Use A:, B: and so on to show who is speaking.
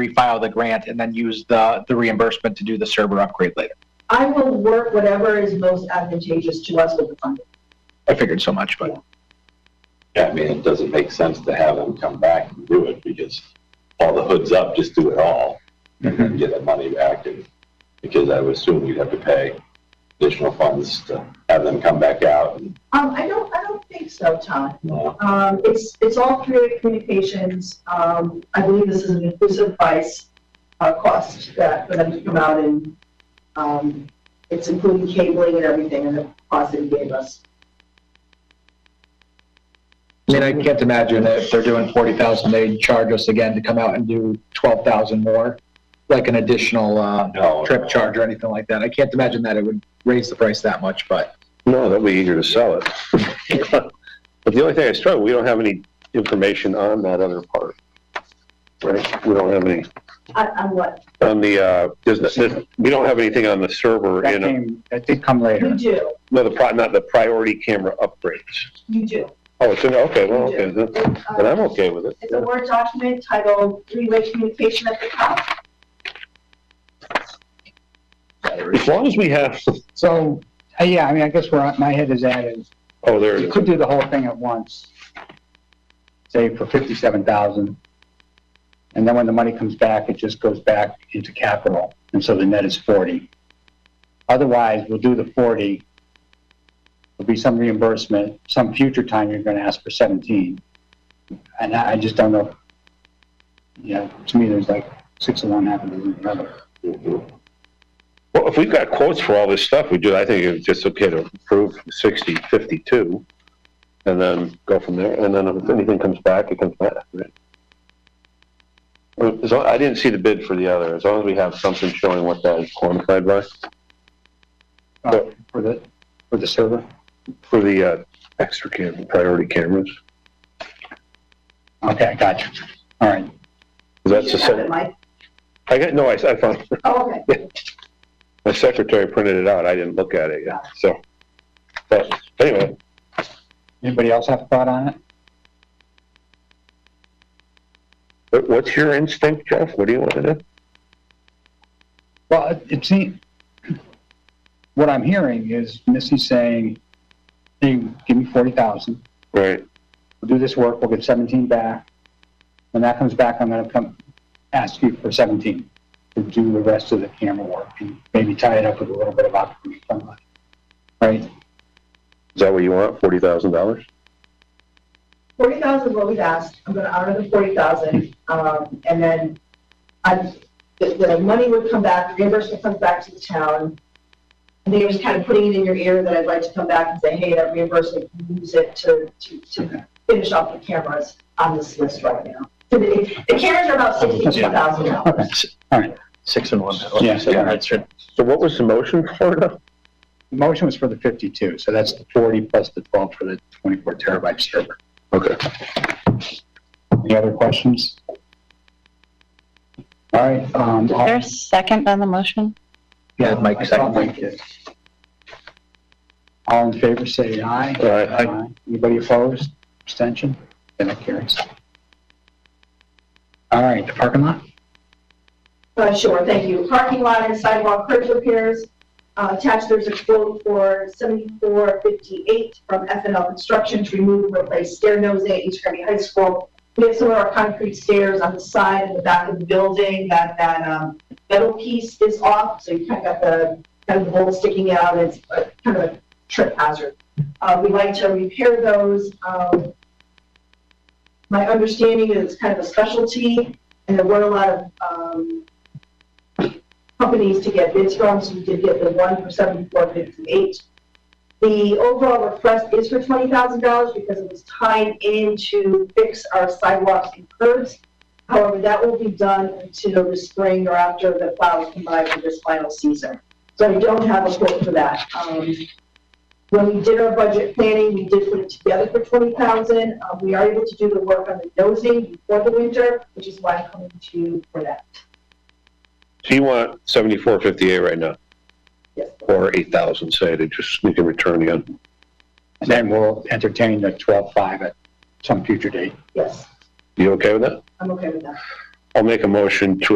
A: refile the grant and then use the, the reimbursement to do the server upgrade later.
B: I will work whatever is most advantageous to us with the funding.
A: I figured so much, but
C: Yeah, I mean, it doesn't make sense to have them come back and do it because all the hood's up, just do it all and then get that money back and because I would assume you'd have to pay additional funds to have them come back out and,
B: Um, I don't, I don't think so, Todd.
C: uh,
B: Um, it's, it's all through communications. Um, I believe this is an inclusive price, uh, cost that for them to come out and, um, it's including cabling and everything and the cost that he gave us.
A: I mean, I can't imagine that if they're doing forty thousand, they'd charge us again to come out and do twelve thousand more, like an additional, uh,
C: no,
A: trip charge or anything like that. I can't imagine that it would raise the price that much, but
D: No, that'd be easier to sell it. But the only thing I struggle, we don't have any information on that other part. Right? We don't have any,
B: I, I'm Uh, what,
D: on the, uh, there's, there's- we don't have anything on the server
A: that
D: in, a-
A: came, that did come
B: you
A: later.
B: do,
D: no, the pri, not the priority camera upgrades.
B: you do.
D: Oh, it's in, okay, well, okay, then
B: Uh,
D: then I'm okay with it.
B: It's a
D: yeah.
B: Word document titled three-way communication at the top.
D: As long as we have,
E: So, uh, yeah, I mean, I guess where my head is at is,
D: oh, there
E: you
D: it
E: could
D: is.
E: do the whole thing at once, say for fifty-seven thousand. And then when the money comes back, it just goes back into capital, and so the net is forty. Otherwise, we'll do the forty. There'll be some reimbursement, some future time you're gonna ask for seventeen. And I, I just don't know, you know, to me, there's like six of one, half of the other.
D: Mhm. Well, if we've got quotes for all this stuff we do, I think it's just okay to approve sixty, fifty-two, and then go from there, and then if anything comes back, it comes back, right? Well, So I didn't see the bid for the other, as long as we have something showing what that is quantified by,
E: Uh, For the, for the server.
D: for the, uh, extra cam, priority cameras,
E: Okay, I got you. All right.
D: 'Cause that's the
B: You have it,
D: same,
B: Mike.
D: I got, no, I, I found,
B: Oh, okay.
D: My secretary printed it out, I didn't look at it yet, so. But anyway,
E: Anybody else have a thought on it?
D: what- what's your instinct, Jeff? What do you want to do?
E: Well, it- it seems, what I'm hearing is Missy saying, hey, give me forty thousand,
D: Right,
E: we'll do this work, we'll get seventeen back. When that comes back, I'm gonna come, ask you for seventeen to do the rest of the camera work and maybe tie it up with a little bit of operating fund money. Right?
D: is that what you want, forty thousand dollars?
B: Forty thousand what we've asked, I'm gonna honor the forty thousand, um, and then I, the, the money would come back, reimbursement comes back to the town. I think I'm just kind of putting it in your ear that I'd like to come back and say, hey, that reimbursement, you can use it to, to, to finish off the cameras on this list right now. So The the cameras are about sixty-two thousand dollars.
A: Six and one.
E: Yeah, yeah.
D: So what was the motion for now?
E: The motion was for the fifty-two, so that's the forty plus the twelve for the twenty-four terabyte server.
D: Okay.
E: Any other questions? All right, um.
F: Is
E: I'll-
F: there a second on the motion?
A: Yeah, Mike,
E: I
A: second.
E: thought Mike did. All in favor, say aye.
D: Aye.
E: Anybody opposed, abstention? Then it carries. All right, the parking lot?
B: Uh, sure, thank you. Parking lot and sidewalk curb repairs. Uh, attached, there's a quote for seventy-four fifty-eight from F and L Construction to remove and replace stair nosing at East Granby High School. We have some of our concrete stairs on the side and the back of the building, that, that, um, metal piece is off, so you kind of got the, kind of the bolt sticking out, it's uh, kind of a trip hazard. Uh, we like to repair those, um, my understanding is it's kind of a specialty, and there were a lot of, um, companies to get bids from, so we did get the one for seventy-four fifty-eight. The overall request is for twenty thousand dollars because it was tied in to fix our sidewalks and curbs. However, that will be done until the spring or after the plows come by for this final season. So we don't have a quote for that. Um, when we did our budget planning, we did put it together for twenty thousand. Uh, we are able to do the work on the nosing before the winter, which is why I'm coming to you for that.
D: So you want seventy-four fifty-eight right now,
B: Yes.
D: or eight thousand, say, to just, you can return again.
E: And then we'll entertain the twelve-five at some future date.
B: Yes,
D: You okay with that?
B: I'm okay with that.
D: I'll make a motion to